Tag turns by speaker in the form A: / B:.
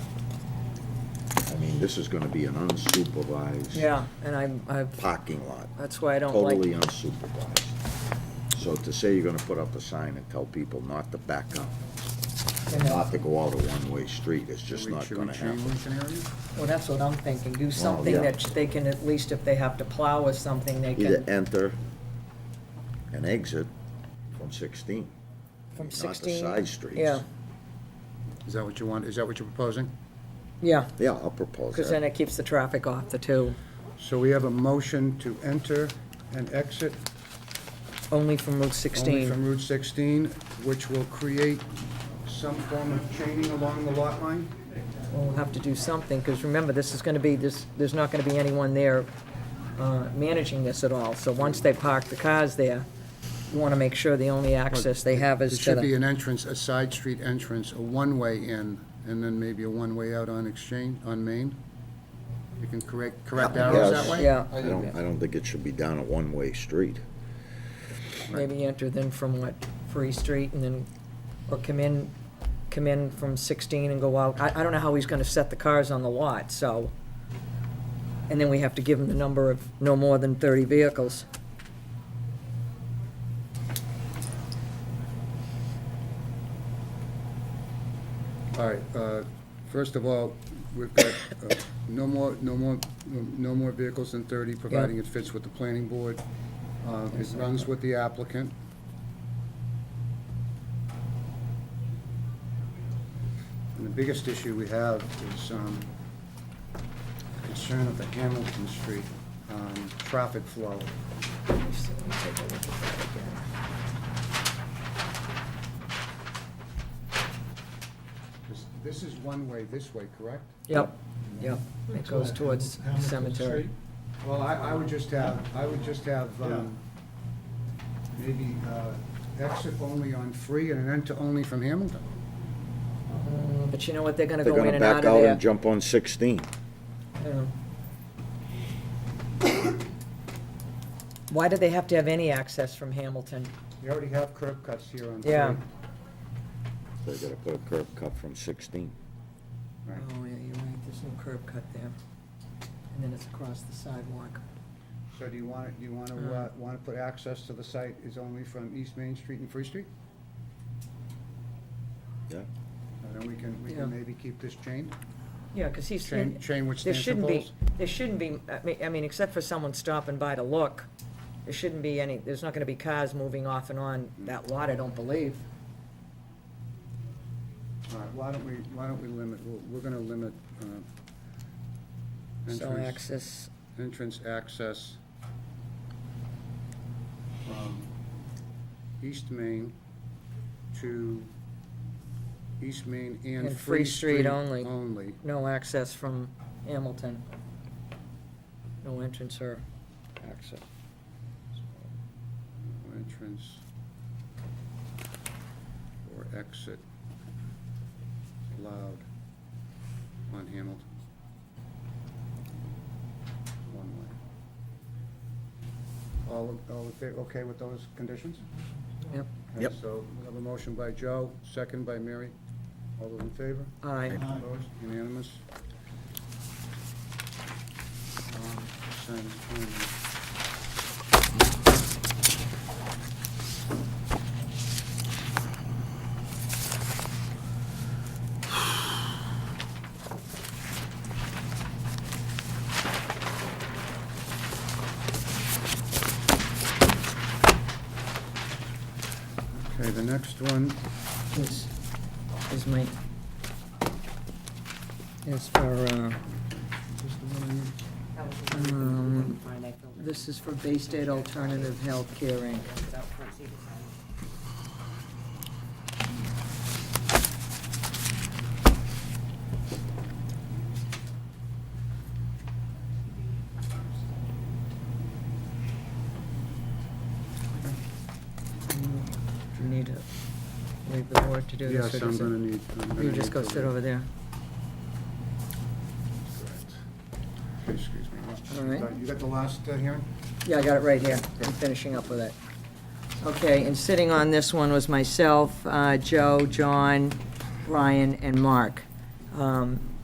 A: mean, this is gonna be an unsupervised.
B: Yeah, and I'm, I've,
A: Parking lot,
B: that's why I don't
A: totally
B: like,
A: unsupervised. So to say you're gonna put up a sign and tell people not to back up, not to go out a one-way street, it's just
C: Should we-
A: not
C: should we
A: gonna
C: tree
A: happen.
C: Lincoln area?
B: well, that's what I'm thinking, do something
A: yeah.
B: that they can, at least if they have to plow or something, they
A: Either
B: can,
A: enter and exit from sixteen.
B: from
A: Not the
B: sixteen.
A: side streets.
B: Yeah,
C: Is that what you want, is that what you're proposing?
B: yeah,
A: Yeah, I'll propose
B: because
A: that.
B: then it keeps the traffic off the two,
C: So we have a motion to enter and exit
B: only from Route
C: only
B: sixteen.
C: from Route 16, which will create some form of chaining along the lot line?
B: Well, We'll have to do something, because remember, this is gonna be, this, there's not gonna be anyone there uh, managing this at all, so once they park the cars there, you wanna make sure the only access they have
C: It
B: is to
C: should be
B: the,
C: an entrance, a side street entrance, a one-way in, and then maybe a one-way out on Exchange, on Main? You can correct, correct arrows that way?
B: yeah,
A: I don't, I don't think it should be down a one-way street.
B: maybe enter then from what, Free Street, and then, or come in, come in from sixteen and go out, I, I don't know how he's gonna set the cars on the lot, so. And then we have to give him the number of no more than thirty vehicles.
C: All right, uh, first of all, we've got uh, no more, no more, no more vehicles than 30, providing it fits with the planning board. Uh, It runs with the applicant. And the biggest issue we have is um, concern of the Hamilton Street um, traffic flow. This- This is one way this way, correct?
B: Yep, yep, it goes towards cemetery.
C: Well, I, I would just have, I would just have, um, maybe, uh, exit only on free and an enter only from Hamilton.
B: But you know what, they're gonna
A: They're
B: go in
A: gonna
B: and out
A: back
B: of
A: out
B: there.
A: and jump on sixteen.
B: Yeah. Why do they have to have any access from Hamilton?
C: You already have curb cuts here on three.
B: Yeah.
A: They're gonna put a curb cut from sixteen.
B: Oh, yeah, you're right, there's no curb cut there. And then it's across the sidewalk.
C: So do you want, to do you want to,
B: Uh-huh.
C: uh, want to put access to the site is only from East Main Street and Free Street?
A: Yeah,
C: And then we can, we
B: Yeah.
C: can maybe keep this chained?
B: Yeah, because he's,
C: Chain,
B: there
C: chain which stands for
B: shouldn't be,
C: poles?
B: there shouldn't be, I mean, I mean, except for someone stopping by to look, there shouldn't be any, there's not gonna be cars moving off and on that lot, I don't believe.
C: All right, why don't we, why don't we limit, we're- we're going to limit, uh,
B: So
C: entrance-
B: access,
C: entrance access from East Main to East Main and Free Street
B: only.
C: only.
B: no access from Hamilton. No entrance or access.
C: Entrance or exit allowed on Hamilton. One way. All, all in fa- okay with those conditions?
B: Yep,
C: Okay,
A: Yep.
C: So we have a motion by Joe, second by Mary. All those in favor?
B: aye.
C: Opposed? Unanimous? Um, sign it, sign it. Okay, the next one
B: is, is my, is for, uh, um, this is for Bay State Alternative Healthcare Inc. Do you need to leave the board to do this?
C: Yes,
B: or
C: I'm
B: does it-
C: gonna need. I'm gonna
B: You just
C: need
B: go
C: to-
B: sit over there.
C: Excuse me.
B: All right.
C: You got the last uh, hearing?
B: Yeah, I got it right here. I'm finishing up with it. Okay, and sitting on this one was myself, uh, Joe, John, Brian, and Mark. Um,